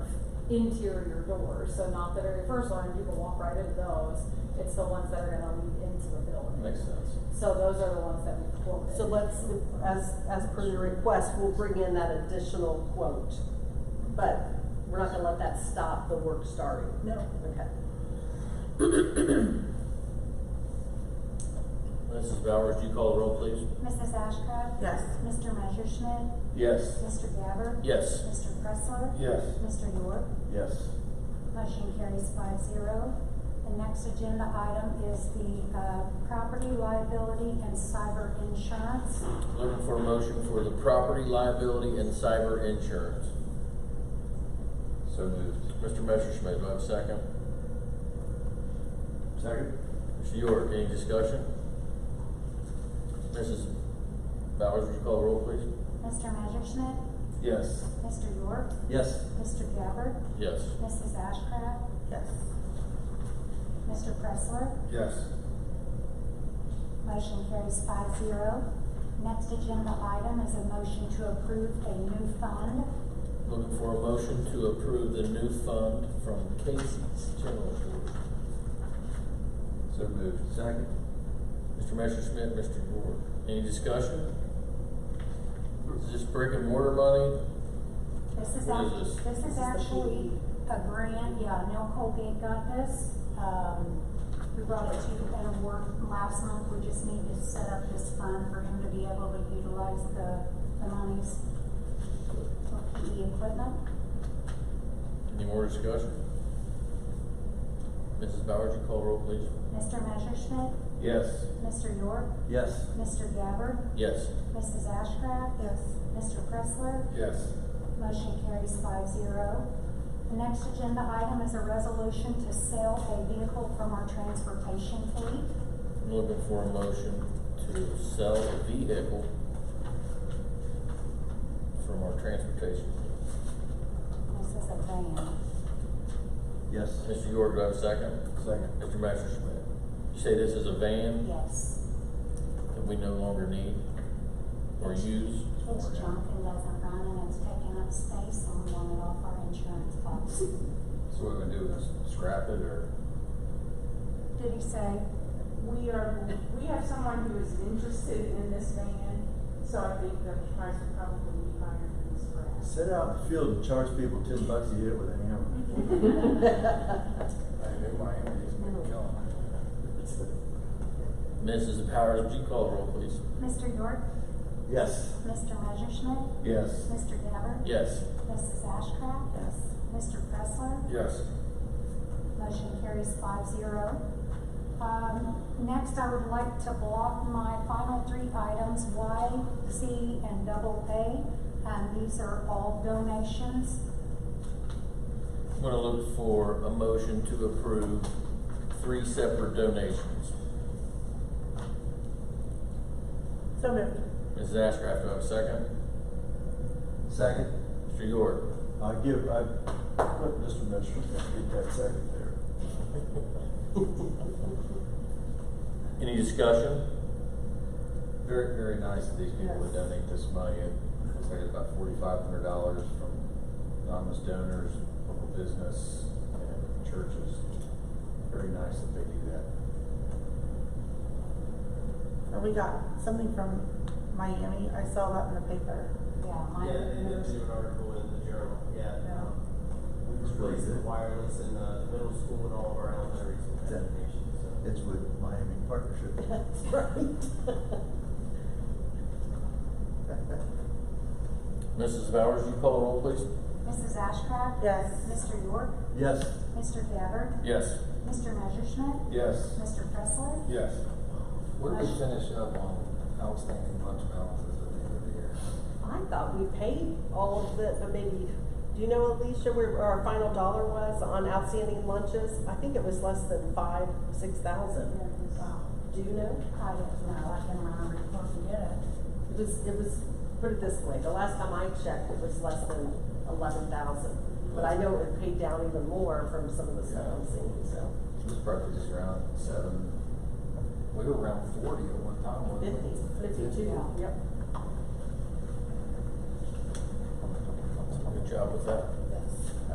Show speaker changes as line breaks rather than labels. interior doors, so not the very first one, people walk right into those. It's the ones that are gonna lead into the building.
Makes sense.
So those are the ones that we quoted.
So let's, as, as per your request, we'll bring in that additional quote. But we're not gonna let that stop the work starting.
No.
Okay.
Mrs. Bowers, do you call the roll, please?
Mrs. Ashcraft?
Yes.
Mr. Messerschmidt?
Yes.
Mr. Gabbard?
Yes.
Mr. Pressler?
Yes.
Mr. York?
Yes.
Motion carries five zero. The next agenda item is the, uh, property liability and cyber insurance.
Looking for a motion for the property liability and cyber insurance.
So moved.
Mr. Messerschmidt, do I have a second?
Second?
Mr. York, any discussion? Mrs. Bowers, would you call the roll, please?
Mr. Messerschmidt?
Yes.
Mr. York?
Yes.
Mr. Gabbard?
Yes.
Mrs. Ashcraft?
Yes.
Mr. Pressler?
Yes.
Motion carries five zero. Next agenda item is a motion to approve a new fund.
Looking for a motion to approve the new fund from Casey's General Fund.
So moved. Second?
Mr. Messerschmidt, Mr. York, any discussion? Is this brick and mortar money?
This is
What is
act-
this?
this
This is
is
the
actually
sheet.
a grant, yeah, Neil Colgate got this. Um, we brought it to you at a work last month, we just need to set up this fund for him to be able to utilize the, the monies for PE equipment.
Any more discussion? Mrs. Bowers, you call roll, please.
Mr. Messerschmidt,
Yes.
Mr. York,
Yes.
Mr. Gabbard,
Yes.
Mrs. Ashcraft. Yes. Mr. Pressler.
Yes.
Motion carries five zero. The next agenda item is a resolution to sell a vehicle from our transportation fleet.
I'm looking for a motion to sell a vehicle from our transportation.
This is a van.
Yes.
Mr. York, do I have a second?
Second.
Mr. Messerschmidt, you say this is a van
Yes.
that we no longer need or use?
It's junk and doesn't run and it's taking up space and we want it off our insurance policy.
So what are we gonna do, just scrap it or?
Did he say?
We are, we have someone who is interested in this van, so I think the price will probably be higher than this grass.
Set out in the field and charge people ten bucks to hit it with a hammer.
I knew my hand is gonna kill him.
Mrs. Powers, would you call roll, please?
Mr. York?
Yes.
Mr. Messerschmidt?
Yes.
Mr. Gabbard?
Yes.
Mrs. Ashcraft?
Yes.
Mr. Pressler?
Yes.
Motion carries five zero. Um, next, I would like to block my final three items, Y, Z, and double A. Um, these are all donations.
I'm gonna look for a motion to approve three separate donations.
So moved.
Mrs. Ashcraft, do I have a second?
Second.
Mr. York?
I give, I, let Mr. Mitchell get that second there.
Any discussion?
Very, very nice of these people to donate this money. It looks like it's about forty-five hundred dollars from anonymous donors, local business, and churches. Very nice that they do that.
And we got something from Miami, I saw that in the paper.
Yeah, mine.
Yeah, they did do an article in the journal, yeah.
Yeah.
um, We
It's really
replaced the
good.
wireless in uh, the middle school and all of our elementary school
That-
applications, so.
It's with Miami Partnership.
That's right.
Mrs. Bowers, you call the roll, please?
Mrs. Ashcraft?
Yes.
Mr. York?
Yes.
Mr. Gabbard?
Yes.
Mr. Messerschmidt?
Yes.
Mr. Pressler?
Yes.
Where do we finish
up on outstanding lunch balances at the end of the year?
I thought we paid all of the, but maybe, do you know, Alicia, where our final dollar was on outstanding lunches? I think it was less than five, six thousand. Do you know?
I don't know, I can uh, remember before we did it.
It was, it was, put it this way, the last time I checked, it was less than eleven thousand. But I know it paid down even more from some of the stuff I'm seeing, so.
It was probably just around seven, we were around forty at one time, wasn't
Fifty,
we?
fifty-two, yep.
Good job with that.